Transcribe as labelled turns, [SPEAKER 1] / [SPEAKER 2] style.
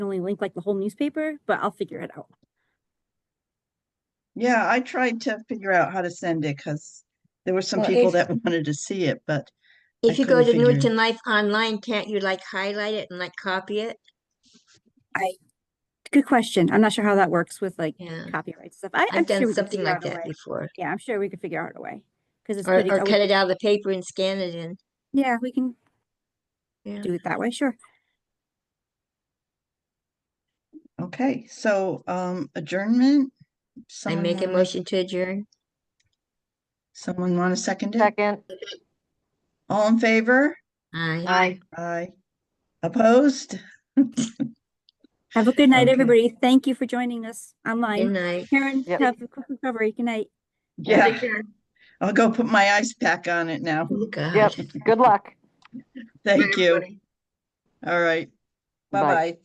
[SPEAKER 1] only link like the whole newspaper, but I'll figure it out.
[SPEAKER 2] Yeah, I tried to figure out how to send it because there were some
[SPEAKER 3] Well,
[SPEAKER 2] people
[SPEAKER 3] if-
[SPEAKER 2] that wanted to see it, but
[SPEAKER 3] If you go
[SPEAKER 2] couldn't
[SPEAKER 3] to
[SPEAKER 2] figure it-
[SPEAKER 3] Newton Life Online, can't you like highlight it and like copy it?
[SPEAKER 1] Good question. I'm not sure how that works with like
[SPEAKER 3] Yeah.
[SPEAKER 1] copyright stuff. I, I'm
[SPEAKER 3] I've
[SPEAKER 1] sure we
[SPEAKER 3] done
[SPEAKER 1] could
[SPEAKER 3] something
[SPEAKER 1] figure
[SPEAKER 3] like
[SPEAKER 1] out a
[SPEAKER 3] that
[SPEAKER 1] way.
[SPEAKER 3] before.
[SPEAKER 1] Yeah, I'm sure we could figure out a way. Cause it's
[SPEAKER 3] Or,
[SPEAKER 1] pretty,
[SPEAKER 3] or
[SPEAKER 1] I would-
[SPEAKER 3] cut it out of the paper and scan it in.
[SPEAKER 1] yeah, we can
[SPEAKER 3] Yeah.
[SPEAKER 1] do it that way, sure.
[SPEAKER 2] okay, so um adjournment.
[SPEAKER 3] I
[SPEAKER 2] someone
[SPEAKER 3] make a
[SPEAKER 2] wanna-
[SPEAKER 3] motion to adjourn.
[SPEAKER 2] Someone want to second it?
[SPEAKER 4] Second,
[SPEAKER 2] All in favor?
[SPEAKER 3] Aye.
[SPEAKER 4] aye.
[SPEAKER 2] Aye. Opposed?
[SPEAKER 1] Have a good night,
[SPEAKER 2] Okay.
[SPEAKER 1] everybody. Thank you for joining us
[SPEAKER 3] Good
[SPEAKER 1] online.
[SPEAKER 3] night.
[SPEAKER 1] Karen,
[SPEAKER 4] Yep.
[SPEAKER 1] have a quick recovery. Good night.
[SPEAKER 2] Yeah, I'll go put my ice pack on it now.
[SPEAKER 3] Oh, God.
[SPEAKER 4] Yep, good luck.
[SPEAKER 2] Thank you.
[SPEAKER 3] Everybody.
[SPEAKER 2] All right.
[SPEAKER 4] Bye.
[SPEAKER 2] Bye-bye.